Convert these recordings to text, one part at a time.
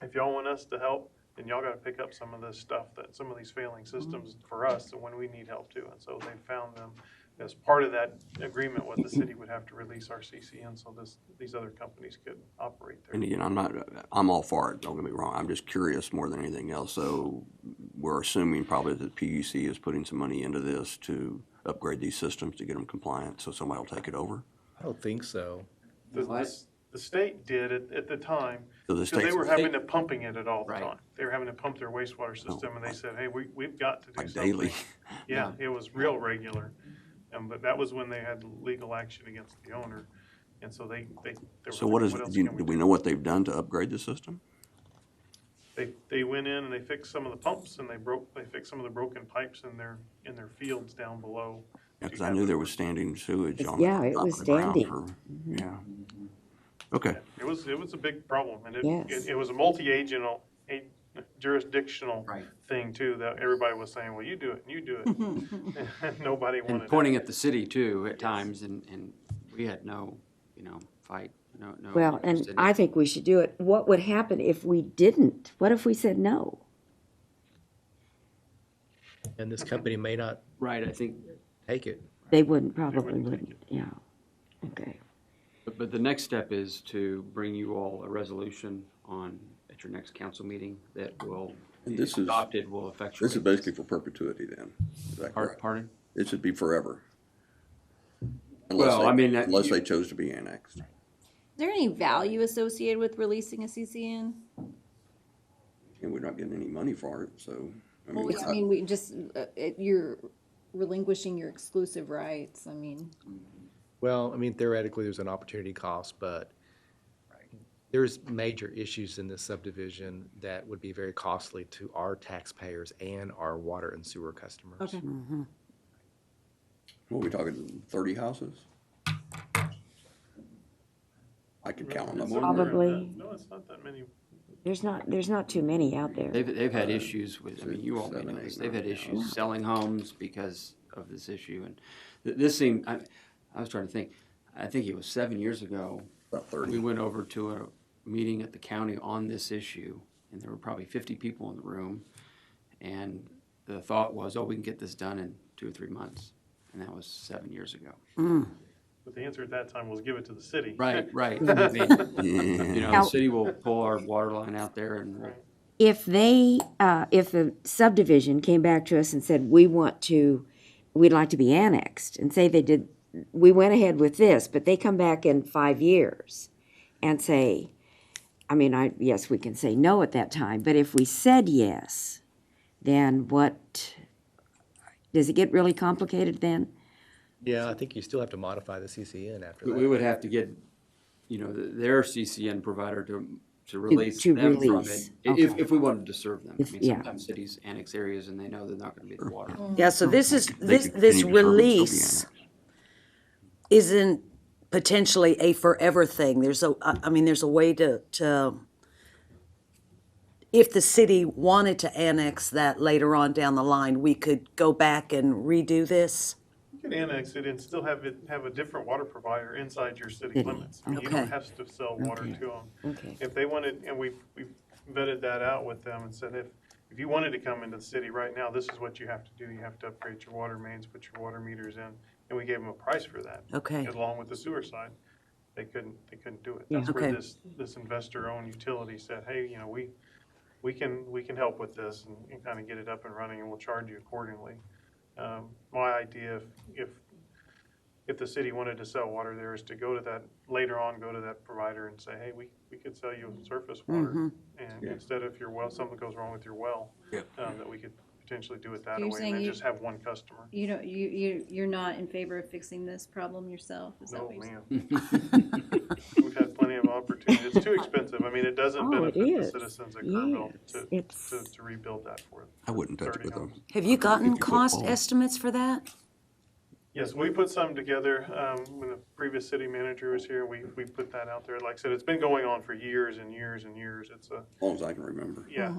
if y'all want us to help, then y'all gotta pick up some of this stuff that, some of these failing systems for us, and when we need help too. And so they found them as part of that agreement, what the city would have to release our CCN, so this, these other companies could operate And there. again, I'm not, I'm all for it, don't get me wrong, I'm just curious more than anything else. So we're assuming probably that PUC is putting some money into this to upgrade these systems to get them compliant, so somebody will take it over? I don't think so. The, What? the- the state did at, at the time, So the because they state's, were having to pumping it at all the Right. time. They were having to pump their wastewater system, and they said, hey, we, we've got to do Oh. like something. daily, Yeah, it was real regular. And, but that was when they had legal action against the owner. And so they, they. they were so what is, like, else do you- can do we know what they've done to upgrade the system? They, they went in and they fixed some of the pumps and they broke, they fixed some of the broken pipes in their, in their fields down below. Because I knew there was standing sewage on the Yeah, it top was of the ground standing. Mm-hmm. for, yeah. Okay, It was, it was a big problem and it, Yes. it, it was a multi-agental, a jurisdictional Right. thing too, that everybody was saying, well, you do it, and you do it. And Nobody wanted And it. pointing at the city too at times, and, and we had no, you know, fight, no, no. Well, and interest in it. I think we should do it. What would happen if we didn't? What if we said no? And this company may not Right, I think, take it. They wouldn't, probably wouldn't take wouldn't, yeah. Okay, but, but the next step is to bring you all a resolution on, at your next council meeting that will, And this if is- adopted, will effectuate. this is basically for perpetuity then, is that Par- correct? Pardon? It should be forever. Unless Well, I they- mean, that- Unless you- they chose to be annexed. Is there any value associated with releasing a CCN? And we're not getting any money for it, so. I Well, mean, I mean, we just, uh, it- you're relinquishing your exclusive rights, I mean. Well, I mean theoretically, there's an opportunity cost, but there's major issues in this subdivision that would be very costly to our taxpayers and our water and sewer customers. What are we talking, thirty houses? I could count on them. It's not on that- there. Probably. No, it's not that many there's not, there's not too many out there. They've, they've had issues with, I mean, you all may Uh, seven, know eight, this, they've had nine, issues selling homes because of this issue, and th- this seemed, I, I was trying to think, I think it was seven years ago, About we thirty. went over to a meeting at the county on this issue, and there were probably fifty people in the room, and the thought was, oh, we can get this done in two or three months, and that was seven years ago. But the answer at that time was give it to the city. Right, right. I mean, You Yeah. know, the city will pull our water line out there and we'll If they, uh, if a subdivision came back to us and said, we want to, we'd like to be annexed, and say they did, we went ahead with this, but they come back in five years and say, I mean, I, yes, we can say no at that time, but if we said yes, then what, does it get really complicated then? Yeah, I think you still have to modify the CCN after We we that. would have to get, you know, th- their CCN provider to, to release to them from it. release, i- If, okay. if we wanted to serve them. I mean, yeah. sometimes cities annex areas and they know they're not gonna be the water. Yeah, so this is, They this, could continue to serve this it, still be release annexed. isn't potentially a forever thing. There's a, I I mean, there's a way to, to, if the city wanted to annex that later on down the line, we could go back and redo this. You can annex it and still have it, have a different water provider inside your city limits. You Okay. don't have to sell water to them. Okay. If they wanted, and we, we vetted that out with them and said, if, if you wanted to come into the city right now, this is what you have to do. You have to upgrade your water mains, put your water meters in, and we gave them a price for that. Okay. Along with the sewer side. They couldn't, they couldn't do it. That's where Okay. this, this investor-owned utility said, hey, you know, we, we can, we can help with this and, and kind of get it up and running and we'll charge you accordingly. Um, my idea, if, if, if the city wanted to sell water there is to go to that, later on, go to that provider and say, hey, we, we could sell you surface Mm-hmm. water. And instead of your well, something goes wrong with your well, um, that we could potentially do it that You're way and saying then you- just have one customer. You don't, you, you, you're not in favor of fixing this problem yourself, is that No, what you're saying? ma'am. We've had plenty of opportunities. It's too expensive. I mean, it doesn't Oh, it benefit the is. citizens at Kerrville Yes, to, it's- to, to rebuild that for them. I wouldn't touch it 30 with them. homes. Have you gotten 50-foot cost pole. estimates for that? Yes, we put some together, um, when the previous city manager was here, we, we put that out there. Like I said, it's been going on for years and years and years. It's a, As long as I can remember. Uh-huh. yeah.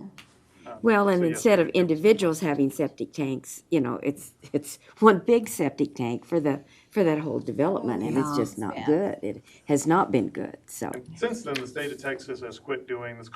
Well, and So, yes, instead of individuals having septic tanks, you know, it's, it's one big septic tank for the, for that whole development, and it's just not Yeah. good. It has not been good, so. Since then, the state of Texas has quit doing this